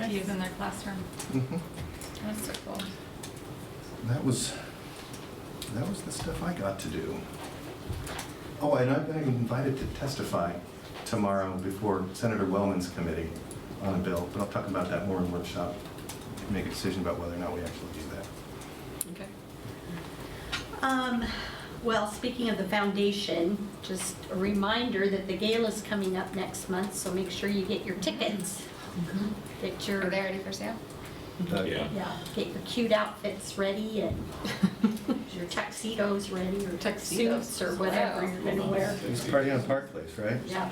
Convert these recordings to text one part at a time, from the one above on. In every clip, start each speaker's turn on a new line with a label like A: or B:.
A: to use in their classroom.
B: Mhm.
A: That's so cool.
B: That was, that was the stuff I got to do. Oh, and I've been invited to testify tomorrow before Senator Wellman's committee on a bill, but I'll talk about that more in workshop, make a decision about whether or not we actually do that.
C: Okay.
D: Um, Well, speaking of the foundation, just a reminder that the gala's coming up next month, so make sure you get your tickets. Get your,
A: Are they ready for sale?
B: But-
E: Yeah.
D: yeah, get your cute outfits ready and your tuxedos ready or
C: Tuxedos.
D: suits or whatever you're gonna wear.
B: It's a party on Park Place, right?
D: Yeah.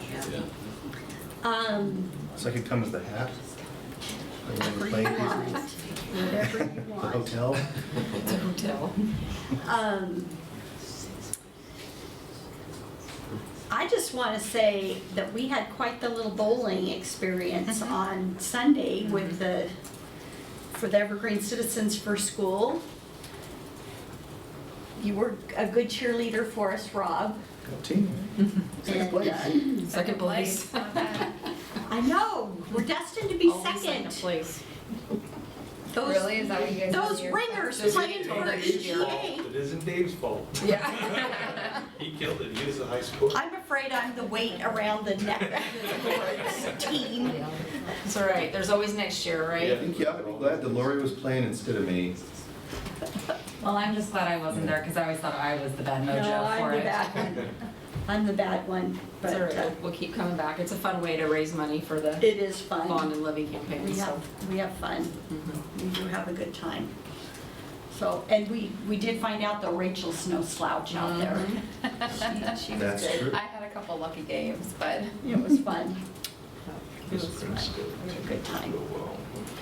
E: Yeah.
D: Um,
B: So I could come as the hat? Or the
D: Whatever
B: plane,
D: you want, whatever you
B: The
D: want.
B: hotel?
C: It's a hotel.
D: Um, I just want to say that we had quite the little bowling experience
C: Mm-hmm.
D: on Sunday with the, for the Evergreen Citizens for School. You were a good cheerleader for us, Rob.
B: Got team.
D: And, uh,
C: Second place.
A: Not bad.
D: I know, we're destined to be
C: Always
D: second.
C: place.
D: Those-
A: Really? Is that what you guys? did
D: Those
A: here?
D: ringers
C: Those
D: playing
C: ringers.
D: for
C: Next year.
D: EGA.
E: It isn't Dave's fault.
C: Yeah.
E: He killed it. He was a high school.
D: I'm afraid I'm the weight around the neck of the Lord's team.
C: It's all right, there's always next year,
B: I
C: right?
B: think, yeah, I'd be glad that Lori was playing instead of me.
F: Well, I'm just glad I wasn't there because I always thought I was the bad
D: No,
F: mojo
D: I'm
F: for
D: the
F: it.
D: bad one. I'm the bad one,
C: It's all
D: but uh,
C: right, we'll keep coming back. It's a fun way to raise money for the
D: it is
C: bond
D: fun.
C: and levy campaign,
D: We
C: so. Mm-hmm.
D: have, we have fun. We do have a good time. So, and we, we did find out though Rachel Snow slouch out there.
A: She was
B: That's
A: good.
B: true.
A: I had a couple lucky games, but,
D: It was fun.
E: It was
D: a good time.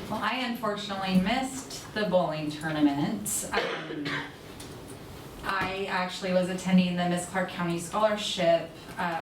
F: Well, I unfortunately missed the bowling tournament. Um, I actually was attending the Miss Clark County Scholarship uh,